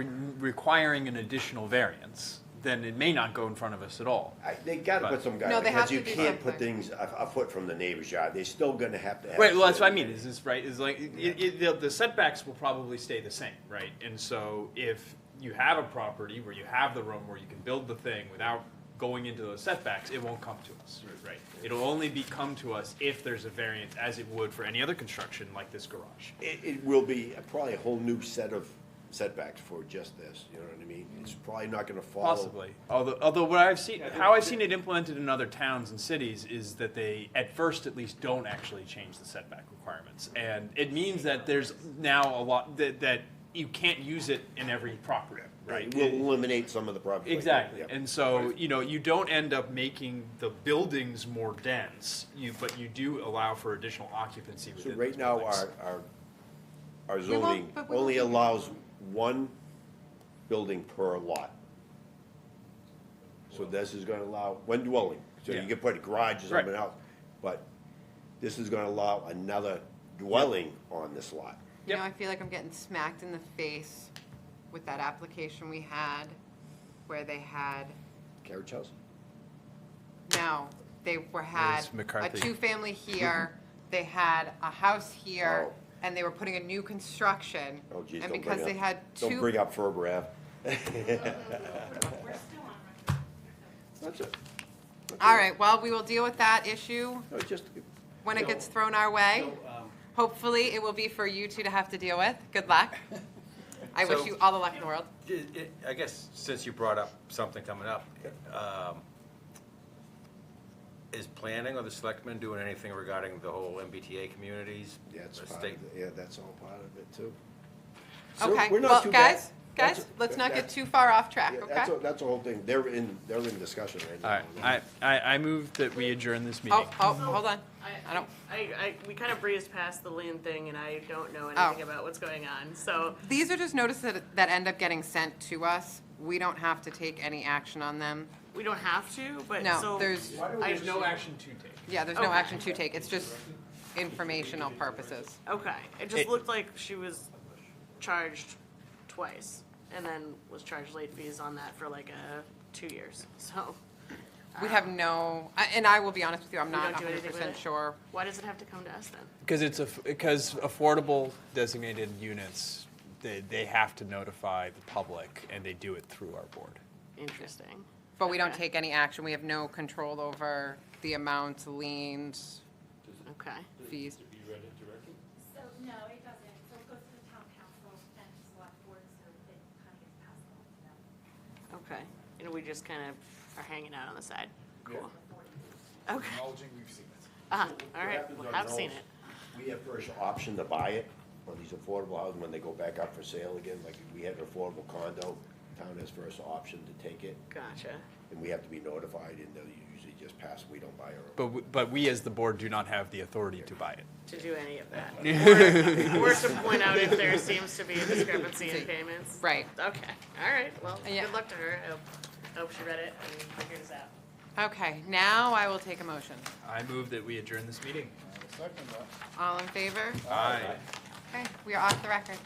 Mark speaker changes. Speaker 1: requiring an additional variance, then it may not go in front of us at all.
Speaker 2: I, they gotta put some
Speaker 3: No,
Speaker 2: guidelines,
Speaker 3: they have
Speaker 2: because you
Speaker 3: to do
Speaker 2: can't put
Speaker 3: something.
Speaker 2: things a, a foot from the neighbor's yard, they're still gonna have to have.
Speaker 1: Right, well, that's what I mean, is this, right, is like, it, it, the- the setbacks will probably stay the same, right? And so if you have a property where you have the room where you can build the thing without going into those setbacks, it won't come to us, right? It'll only be come to us if there's a variance, as it would for any other construction like this garage.
Speaker 2: It, it will be a- probably a whole new set of setbacks for just this, you know what I mean? It's probably not gonna follow.
Speaker 1: Possibly. Oh. Although, although what I've seen, how I've seen it implemented in other towns and cities is that they, at first at least, don't actually change the setback requirements. And it means that there's now a lot, that, that you can't use it in every property, right?
Speaker 2: Right, we'll eliminate some of the problems. like that,
Speaker 1: Exactly.
Speaker 2: yeah.
Speaker 1: And so, you know, you don't end up making the buildings more dense, you, but you do allow for additional occupancy
Speaker 2: So
Speaker 1: within
Speaker 2: right
Speaker 1: those
Speaker 2: now,
Speaker 1: buildings.
Speaker 2: our, our, our
Speaker 3: won't-
Speaker 2: zoning
Speaker 3: but we
Speaker 2: only
Speaker 3: won't-
Speaker 2: allows one building per lot. So this is gonna allow one dwelling, so
Speaker 1: Yeah.
Speaker 2: you can put a garage or
Speaker 1: Right.
Speaker 2: something else, but this is gonna allow another dwelling on this lot.
Speaker 3: You know,
Speaker 1: Yep.
Speaker 3: I feel like I'm getting smacked in the face with that application we had where they had,
Speaker 2: Carriage house?
Speaker 3: no, they were had
Speaker 1: It's
Speaker 3: a
Speaker 1: McCarthy.
Speaker 3: two-family here, they had a house here,
Speaker 2: Oh.
Speaker 3: and they were putting a new construction.
Speaker 2: Oh geez,
Speaker 3: And
Speaker 2: don't bring up.
Speaker 3: because they had
Speaker 2: Don't bring
Speaker 3: two,
Speaker 2: up Ferber Ave.
Speaker 4: We're still on record.
Speaker 2: That's it. That's
Speaker 3: all
Speaker 2: it.
Speaker 3: right, well, we will deal with that issue
Speaker 2: No, it's just,
Speaker 3: when it
Speaker 5: No.
Speaker 3: gets thrown our way.
Speaker 5: So, um,
Speaker 3: Hopefully, it will be for you two to have to deal with. Good luck. I wish
Speaker 5: So-
Speaker 3: you all the luck in the world.
Speaker 5: it- it- I guess since you brought up something coming up, um, is planning or the selectmen doing anything regarding the whole MBTA communities?
Speaker 2: yeah, it's
Speaker 5: The
Speaker 2: part
Speaker 5: state-
Speaker 2: of, it. yeah, that's all part of it too. So
Speaker 3: Okay,
Speaker 2: we're not
Speaker 3: well,
Speaker 2: too bad.
Speaker 3: guys,
Speaker 2: That's-
Speaker 3: guys, let's not
Speaker 2: that-
Speaker 3: get too far off track,
Speaker 2: Yeah,
Speaker 3: okay?
Speaker 2: that's, a- that's the whole thing, they're in, they're in discussion right now.
Speaker 1: All right, I, I, I move that we adjourn this meeting.
Speaker 3: Oh, oh, hold on. I don't,
Speaker 4: I, I, we kind of breezed past the land thing and I don't know
Speaker 3: Oh.
Speaker 4: anything about what's going on, so.
Speaker 3: these are just notices that, that end up getting sent to us. We don't have to take any action on them.
Speaker 4: We don't have to, but
Speaker 3: No,
Speaker 4: so. Oh.
Speaker 3: there's-
Speaker 1: There's no action to take.
Speaker 3: Yeah, there's no
Speaker 4: Okay.
Speaker 3: action to take. It's just informational purposes.
Speaker 4: Okay, it
Speaker 1: It-
Speaker 4: just looked like she was charged twice and then was charged late fees on that for like a, two years, so.
Speaker 3: We have no, I- and I will be honest with you, I'm
Speaker 4: We
Speaker 3: not
Speaker 4: don't do anything
Speaker 3: hundred
Speaker 4: with
Speaker 3: percent
Speaker 4: it?
Speaker 3: sure.
Speaker 4: Why does it have to come to us then?
Speaker 1: Because it's a, because affordable designated units, they, they have to notify the public and they do it through our board.
Speaker 4: Interesting.
Speaker 3: But we don't
Speaker 4: Okay.
Speaker 3: take any action. We have no control over the amounts, liens,
Speaker 4: Okay,
Speaker 3: fees.
Speaker 6: So, no, it doesn't, so it goes to the town council and the select board, so it kind of gets passed on to them.
Speaker 4: okay. And we just kind of are hanging out on the side. Cool. Okay. Ah, all right,
Speaker 2: What happens on
Speaker 4: I've seen
Speaker 2: those,
Speaker 4: it.
Speaker 2: We have first option to buy it on these affordable houses when they go back up for sale again, like if we had an affordable condo, town has first option to take it,
Speaker 4: Gotcha.
Speaker 2: and we have to be notified, and they'll usually just pass, we don't buy our own.
Speaker 1: But, w- but we as the board do not have the authority to buy it.
Speaker 4: to do any of that. Or- Or to point out if there seems to be a discrepancy in payments.
Speaker 3: Right.
Speaker 4: Okay, all right, well,
Speaker 3: Yeah.
Speaker 4: good luck to her. I hope, I hope she read it and figures it out.
Speaker 3: Okay, now I will take a motion.
Speaker 1: I move that we adjourn this meeting.
Speaker 3: All in favor?
Speaker 1: Aye.
Speaker 3: Okay, we are off the record.